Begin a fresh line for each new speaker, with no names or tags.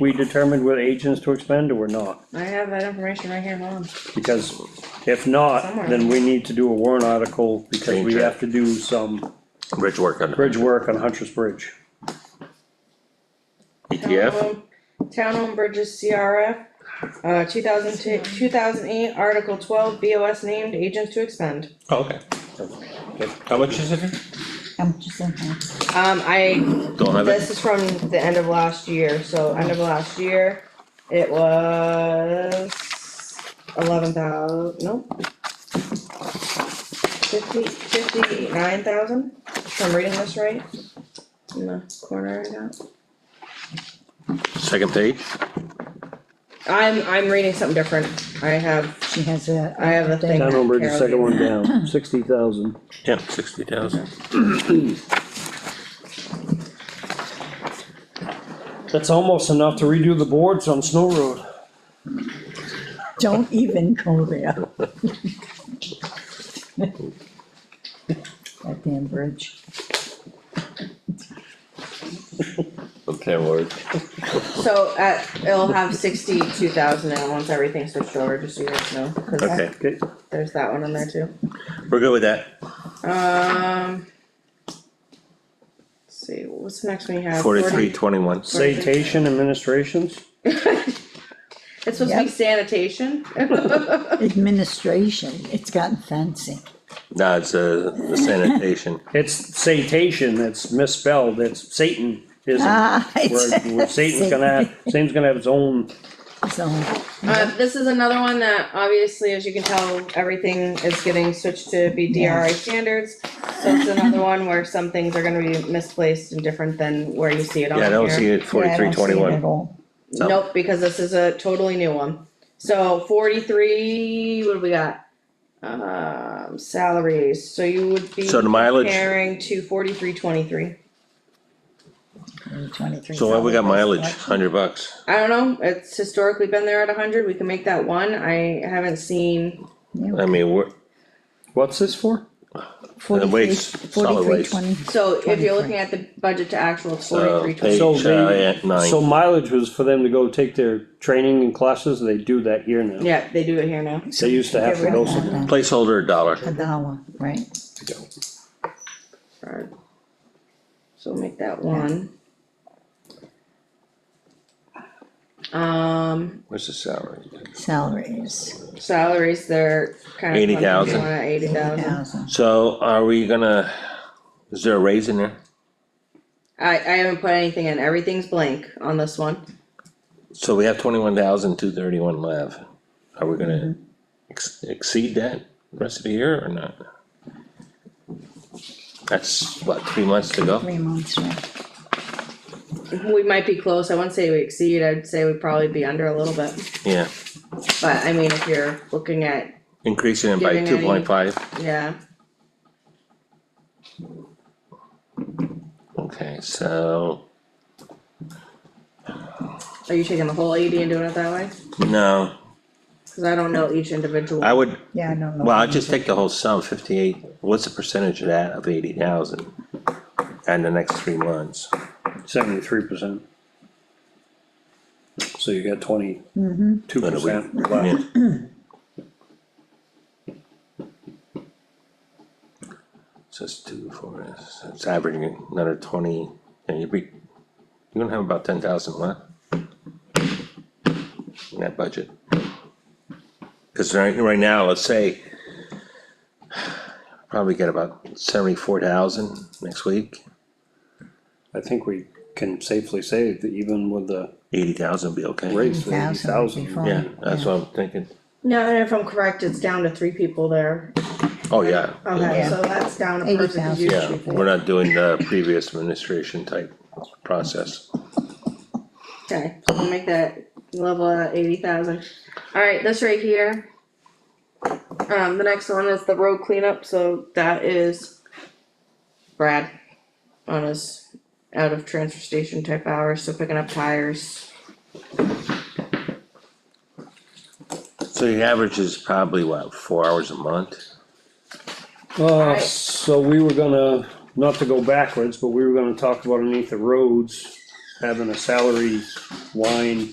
we determined what agents to expend or not?
I have that information right here, hold on.
Because if not, then we need to do a warrant article because we
Change it.
have to do some
bridge work on
bridge work on Huntress Bridge.
E ETF,
Town-owned- Town-owned bridges CRF, uh, 2008 2008, Article twelve, BOS named agents to expend.
Oh, Okay. Okay. How much is it?
I'm just thinking,
Um, I,
don't have
this
it,
is from the end of last year, so end of last year, it was eleven thousand. no. Fifty, fifty-nine thousand, if I'm reading this right, in the corner I got.
second page,
I'm, I'm reading something different, I have
she has a.
I have a thing.
Town over the
Carol
second
did.
one down, sixty thousand.
yeah, sixty thousand.
That's almost enough to redo the boards on Snow Road.
Don't even go there. That damn bridge.
Okay, word.
So at, it'll have sixty-two thousand and once everything's switched over, just so you guys know, cause
Okay,
Okay,
there's that one in there too.
we're good with that,
Um. let's See, what's the next one you have?
forty-three twenty-one,
citation administrations,
It's supposed to be
Yep.
sanitation?
Administration, it's gotten fancy.
no, it's uh, sanitation,
it's citation, it's misspelled, it's Satan isn't.
Ah,
Where,
it's,
where Satan's gonna have, Satan's gonna have his own,
so,
Uh, this is another one that obviously, as you can tell, everything is getting switched to be
Yeah.
DRI standards. So it's another one where some things are gonna be misplaced and different than where you see it on
yeah,
here.
I don't see it,
yeah, I
forty-three
don't see it at
twenty-one,
all.
So-
Nope, because this is a totally new one. So forty-three, what do we got? Um, salaries, so you would be
so the mileage,
comparing to forty-three twenty-three.
Twenty-three.
so why we got
dollars.
mileage, hundred bucks,
I don't know, it's historically been there at hundred, we can make that one, I haven't seen,
I
Yeah,
mean, we're,
what's this for?
Forty-three,
waste, solid
forty-three
waste.
twenty,
so if you're looking at the budget to actual, it's
uh,
forty-three twenty.
page,
So
uh,
they-
yeah,
So
nine,
mileage was for them to go take their training and classes, they do that here now.
Yeah, they do it here now.
They used to have to go somewhere.
placeholder a
a
dollar,
dollar, right?
Alright. So make that one. Um,
what's the salary?
Salaries,
salaries, they're kind of.
80,000.
Eighty thousand.
thousand.
So are we gonna, is there a raise in there?
I, I haven't put anything in, everything's blank on this one.
So we have twenty-one thousand, two thirty-one left, are we gonna ex- exceed that rest of the year or not? That's what, three months to go?
Three months, right?
We might be close, I wouldn't say we exceed, I'd say we'd probably be under a little bit,
Yeah,
but I mean, if you're looking at,
increasing it by
Giving
two
any-
point five,
yeah.
okay, so,
Are you taking the whole eighty and doing it that way?
no,
Cause I don't know each individual.
I would,
Yeah, I don't know.
well, I'd just take the whole sum, fifty-eight, what's the percentage of that of eighty thousand? And the next three months,
Seventy-three percent. So you got twenty-two
Mm-hmm.
But we-
percent
yeah.
left.
So it's two, four, it's- it's averaging another twenty, and you'd be, you're gonna have about ten thousand left. In that budget. Cause right, right now, let's say. Probably get about seventy-four thousand next week,
I think we can safely say that even with the
eighty thousand would be okay.
raise, eighty
Thousand would be
thousand.
fine.
Yeah, that's what I'm thinking,
No, and if I'm correct, it's down to three people there.
oh, yeah.
Okay,
Yeah.
so that's down a person. 'cause you-
Yeah, we're not doing the previous administration type process.
Okay, so we'll make that level at eighty thousand. Alright, this right here. Um, the next one is the road cleanup, so that is Brad on his out of transfer station type hours, so picking up tires.
So the average is probably what, four hours a month?
Uh, so we were gonna, not to go backwards, but we were gonna talk about underneath the roads, having a salary line